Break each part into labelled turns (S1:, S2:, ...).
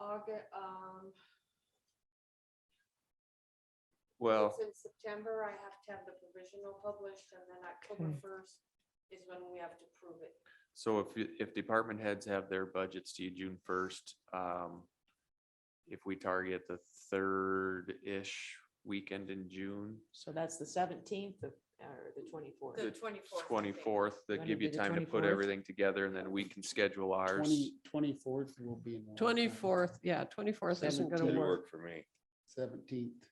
S1: August, um,
S2: Well,
S1: it's in September, I have to have the provisional published, and then October
S3: Okay.
S1: first is when we have to prove it.
S2: so if, you- if department heads have their budgets to you June first, um, if we target the third-ish weekend in June,
S3: So that's the seventeenth or the twenty-fourth.
S1: The
S2: The
S1: twenty-fourth.
S2: twenty-fourth, that
S3: Wanna
S2: give you
S3: do the
S2: time to put
S3: 24th?
S2: everything together and then we can schedule ours.
S4: Twenty, twenty-fourth will be. in.
S5: Twenty-fourth, yeah, twenty-fourth isn't gonna
S4: Seventeenth.
S5: work.
S6: for me.
S4: Seventeenth.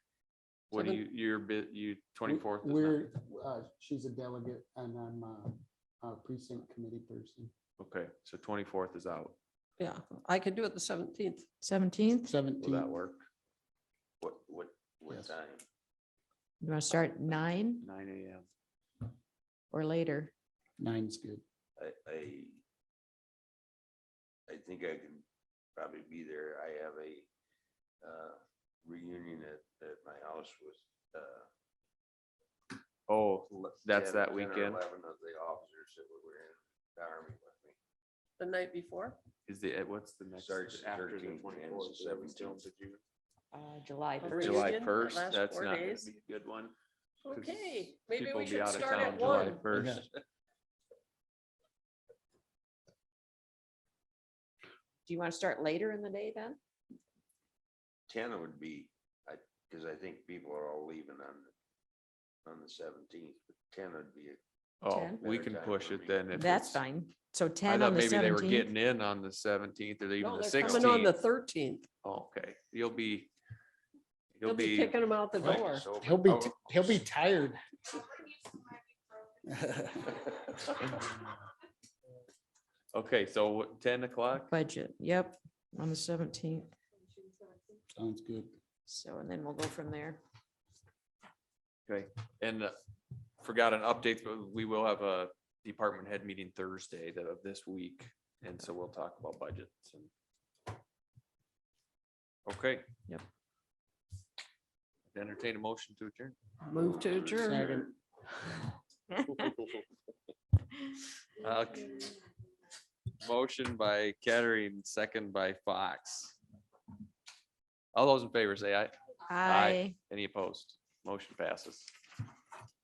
S2: What do
S5: seven-
S2: you, your bit, you twenty-fourth?
S4: We're, uh, she's a delegate and I'm uh, a, a precinct committee person.
S2: Okay, so twenty-fourth is out.
S5: Yeah, I could do it the seventeenth.
S7: Seventeenth,
S2: Will
S4: Seventeenth.
S2: that work?
S6: What, what, what
S4: Yes.
S6: time?
S7: you want to start nine
S2: Nine AM.
S7: or later?
S4: Nine's good.
S6: I, I. I think I can probably be there. I have a, uh, reunion at, at my house with, uh.
S2: Oh,
S6: le-
S2: That's
S6: 10
S2: that
S6: 10 or
S2: weekend?
S6: Eleven of the officers that were in the army with me.
S5: The night before?
S2: is the, eh, what's the next?
S6: Starts at
S2: after the
S6: 13th and ends
S2: 24th,
S6: at
S2: is it still
S6: 17th.
S2: to June?
S7: July
S5: Of
S7: first.
S2: July
S5: Reunion, that
S2: first,
S5: last
S2: that's
S5: four
S2: not gonna
S5: days?
S2: be a good one. 'cause
S5: Okay, maybe
S2: people
S5: we
S2: will be
S5: should
S2: out of
S5: start
S2: town
S5: at
S2: July
S5: one.
S2: 1st.
S7: Do you want to start later in the day then?
S6: Ten would be, I, cause I think people are all leaving on, the- on the seventeenth, but ten would be a
S2: Oh,
S7: 10?
S2: we
S6: Better
S2: can
S6: time
S2: push
S6: for
S2: it
S6: me.
S2: then if
S7: That's
S2: it's-
S7: fine. So
S2: I
S7: ten
S2: thought
S7: on the
S2: maybe they were
S7: seventeenth.
S2: getting in on the seventeenth or even
S5: No,
S2: the
S5: they're coming on the
S2: sixteenth.
S5: thirteenth.
S2: Oh, Okay, you'll be,
S5: They'll
S2: you'll
S5: be
S2: be,
S5: kicking them out the
S6: Right,
S5: door.
S6: so-
S4: He'll be,
S6: oh,
S4: t- he'll be tired.
S2: okay, so what, ten o'clock?
S7: Budget, yep, on the seventeenth.
S4: Sounds good.
S7: So, and then we'll go from there.
S2: Okay, and uh, forgot an update, but we will have a department head meeting Thursday the- of this week. And so we'll talk about budgets and. Okay.
S7: Yep.
S2: Entertain a motion to adjourn.
S5: Move to adjourn.
S4: Second.
S2: Uh, Motion by Kettering, second by Fox. All those in favor say aye.
S7: Aye.
S2: Any opposed? Motion passes.